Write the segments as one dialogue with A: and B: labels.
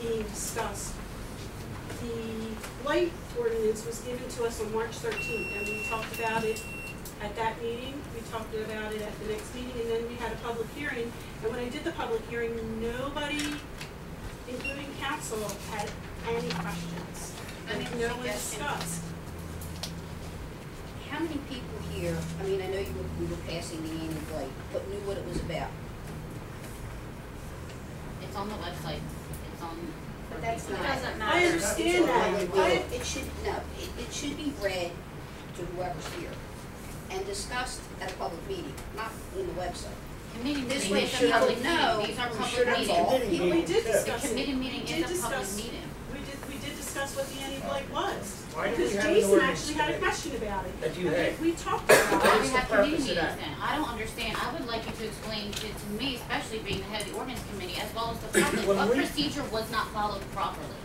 A: being discussed. The light ordinance was given to us on March thirteenth, and we talked about it at that meeting, we talked about it at the next meeting, and then we had a public hearing. And when I did the public hearing, nobody, including council, had any questions.
B: I mean,
A: And no one
B: suggestions.
A: discussed.
B: How many people here, I mean, I know you were, we were passing the annual light, but knew what it was about?
C: It's on the website, it's on.
B: But that's
C: It
B: not-
C: doesn't
A: I
C: matter.
A: understand that, but
B: It should, no, it, it should be read to whoever's here and discussed at a public meeting, not in the website.
C: Committee
B: This
C: meeting
B: way
C: is a
B: people
C: public
B: know.
C: meeting, these are
B: We
C: public
B: should have all-
C: meetings.
D: Committee
A: we
D: meeting,
A: did
D: yeah.
A: discuss
C: The
A: it.
C: committee meeting
A: We did
C: is a public
A: discuss-
C: meeting.
A: We did, we did discuss what the anti-blight was.
D: Why do we
A: Because
D: have an
A: Jason
D: ordinance
A: actually had a
D: today?
A: question about it.
D: That you
A: I think
D: had.
A: We talked about
C: Why
A: it.
C: do we
D: the
C: have committee
D: purpose of
C: meetings
D: that?
C: then? I don't understand, I would like you to explain to, to me, especially being the head of the ordinance committee, as well as the public,
D: When
C: what
D: we-
C: procedure was not followed properly?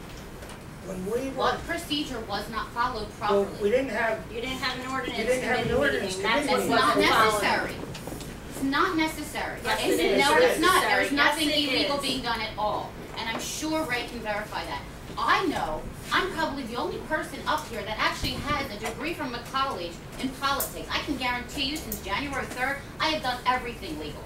D: When we were,
C: What procedure was not followed
D: well, we
C: properly?
D: didn't have,
C: You didn't have an ordinance
D: You didn't have an
C: committee
D: ordinance
C: meeting, that's
D: committee
C: what's not
E: meeting. Wasn't followed.
C: necessary. It's not necessary.
E: Yes,
C: It's-
E: it is.
C: No,
D: Yes,
C: it's not,
E: it is.
C: there's
E: Yes,
C: nothing
E: it
C: illegal
E: is.
C: being done at all, and I'm sure Ray can verify that. I know, I'm probably the only person up here that actually has a degree from a college in politics. I can guarantee you, since January third, I have done everything legal.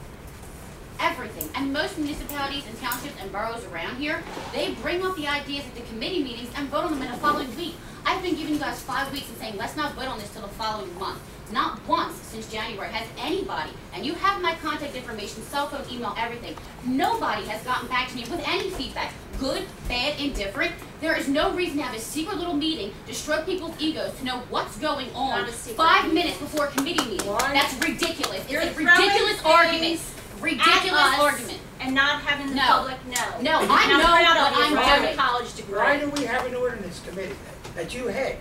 C: Everything, and most municipalities and townships and boroughs around here, they bring up the ideas at the committee meetings and vote on them in the following week. I've been giving you guys five weeks and saying, let's not vote on this till the following month. Not once since January has anybody, and you have my contact information, cell phone, email, everything. Nobody has gotten back to me with any feedback, good, bad, indifferent. There is no reason to have a secret little meeting to stroke people's egos to know what's going on
E: Not a secret
C: five
E: meeting.
C: minutes before a committee meeting.
D: Why?
C: That's ridiculous. It's
E: You're
C: a
E: throwing
C: ridiculous
E: things
C: argument. Ridiculous
E: us.
C: argument.
E: and not having the
C: No.
E: public know.
C: No,
E: And
C: I
E: I'm
C: know
E: proud
C: what
E: of you
C: I'm
E: for having
C: doing.
E: a college degree.
D: why do we have an ordinance committee that you had?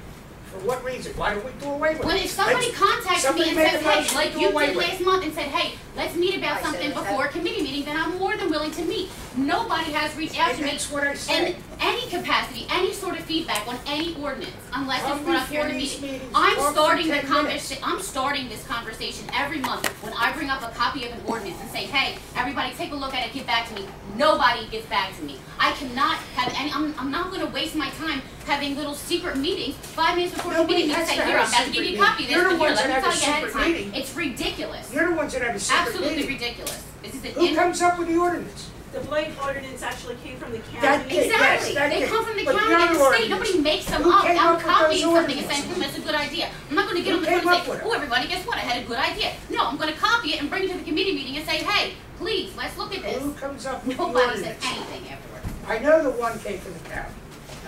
D: For what reason? Why did we do away with it?
C: When if somebody
D: Let's-
C: contacts me
D: somebody
C: and
D: made
C: says,
D: the
C: hey,
D: motion
C: like
D: to
C: you
D: away
C: did
D: with
C: last month and said, hey, let's meet about
B: I said
C: something
B: it, that-
C: before a committee meeting, then I'm more than willing to meet. Nobody has reached out to
D: And
C: me
D: that's what I
C: in
D: said.
C: any capacity, any sort of feedback on any ordinance, unless
D: Come
C: it's brought up here in a
D: before these
C: meeting.
D: meetings, talk
C: I'm
D: for
C: starting the
D: 10 minutes.
C: conversation, I'm starting this conversation every month when I bring up a copy of an ordinance and say, hey, everybody, take a look at it, get back to me. Nobody gets back to me. I cannot have any, I'm, I'm not gonna waste my time having little secret meetings, five minutes before the
D: Nobody
C: meeting, I
D: has
C: say,
D: to
C: here,
D: have
C: I'm
D: a
C: about to give
D: secret
C: you a copy of
D: meeting.
C: this,
D: You're
C: but
D: the
C: here,
D: ones
C: let me
D: that have
C: tell
D: a
C: you ahead of
D: secret
C: time.
D: meeting.
C: It's ridiculous.
D: You're the ones that have a secret
C: Absolutely
D: meeting.
C: ridiculous. This is an
D: Who
C: in-
D: comes up with the ordinance?
A: The blight ordinance actually came from the
D: That
A: county.
D: did.
C: Exactly.
D: yes, that
C: they
D: did.
C: come from the
D: But
C: county and
D: your
C: the state.
D: ordinance.
C: Nobody makes them
D: Who
C: up.
D: came
C: I'm
D: up with
C: copying
D: those
C: something and
D: ordinances?
C: saying, "Hmm, that's a good idea." I'm not going to get
D: Who
C: on the
D: came
C: phone and
D: up
C: say,
D: with it?
C: "Oh, everybody, guess what? I had a good idea." No, I'm going to copy it and bring it to the committee meeting and say, "Hey, please, let's look at this."
D: Who comes up with the
C: Nobody said
D: ordinance?
C: anything afterward.
D: I know the one came from the county,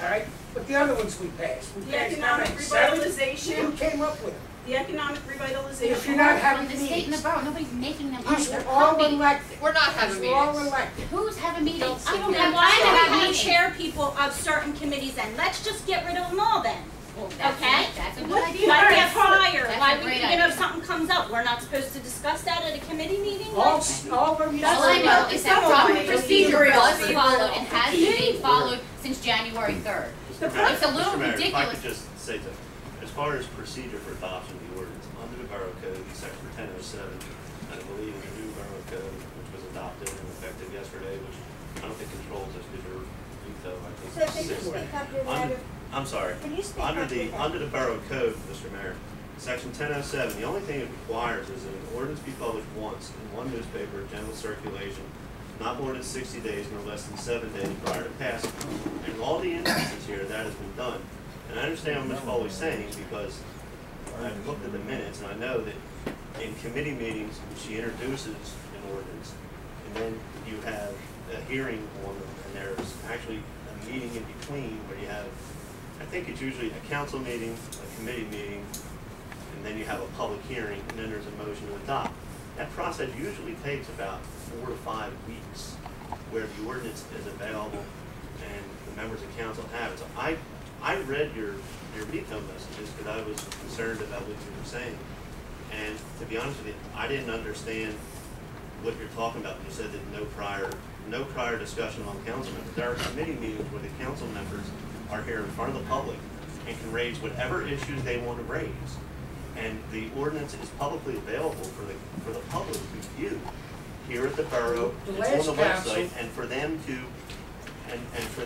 D: all right? But the other ones we passed. We
A: The
D: passed
A: economic
D: nine, seven. Who
A: revitalization,
D: came up with it?
A: the economic revitalization.
D: If you're not
C: From
D: having
C: the state and the
D: meetings,
C: borough, nobody's making them up.
D: these
C: They're
D: were all
C: copying.
D: elected.
F: We're not
D: These
F: having
D: were all
F: meetings.
D: elected.
C: Who's having meetings? I don't
E: Then
C: have.
E: why
C: I
E: do
C: have
E: we have
C: meetings.
E: chair people of certain committees then? Let's just get rid of them all then.
C: Well, that's
E: Okay.
C: it. That's a good
A: What
C: idea.
A: the-
E: Why we
A: Yes.
E: have fire,
C: That's
E: why
C: a
E: we,
C: great
E: you know,
C: idea.
E: if something comes up, we're not supposed to discuss that at a committee meeting?
D: All,
E: Like,
D: s- all of you.
C: All I know is that
A: That's
C: proper
A: right.
C: procedure
A: Be real.
C: was
A: Be
C: followed
A: real.
C: and has been followed since January third.
A: The
G: Mayor-
C: It's a little
G: Mr. Mayor, if I
C: ridiculous.
G: could just say that, as far as procedure for adoption of the ordinance, under the Borough Code, Section ten oh seven, I believe in the new Borough Code, which was adopted and effective yesterday, which I don't think controls us, because you're, youth, though, I think.
B: So can you
G: six.
B: speak up your
G: Under-
B: louder?
G: I'm sorry.
B: Can you speak
G: Under
B: up
G: the,
B: your louder?
G: under the Borough Code, Mr. Mayor, Section ten oh seven, the only thing it requires is that an ordinance be published once in one newspaper of general circulation, not more than sixty days nor less than seven days prior to passing. And in all the instances here, that has been done. And I understand what Ms. Foley's saying, because I've looked at the minutes, and I know that in committee meetings, she introduces an ordinance, and then you have a hearing on them, and there's actually a meeting in between where you have, I think it's usually a council meeting, a committee meeting, and then you have a public hearing, and then there's a motion to adopt. That process usually takes about four to five weeks, where the ordinance is available and the members of council have it. So I, I read your, your veto messages, because I was concerned about what you were saying. And to be honest with you, I didn't understand what you're talking about when you said that no prior, no prior discussion among council members. There are committee meetings where the council members are here in front of the public and can raise whatever issues they want to raise. And the ordinance is publicly available for the, for the public to view here at the borough.
D: The
G: It's on the
D: last council-
G: website, and for them to, and, and for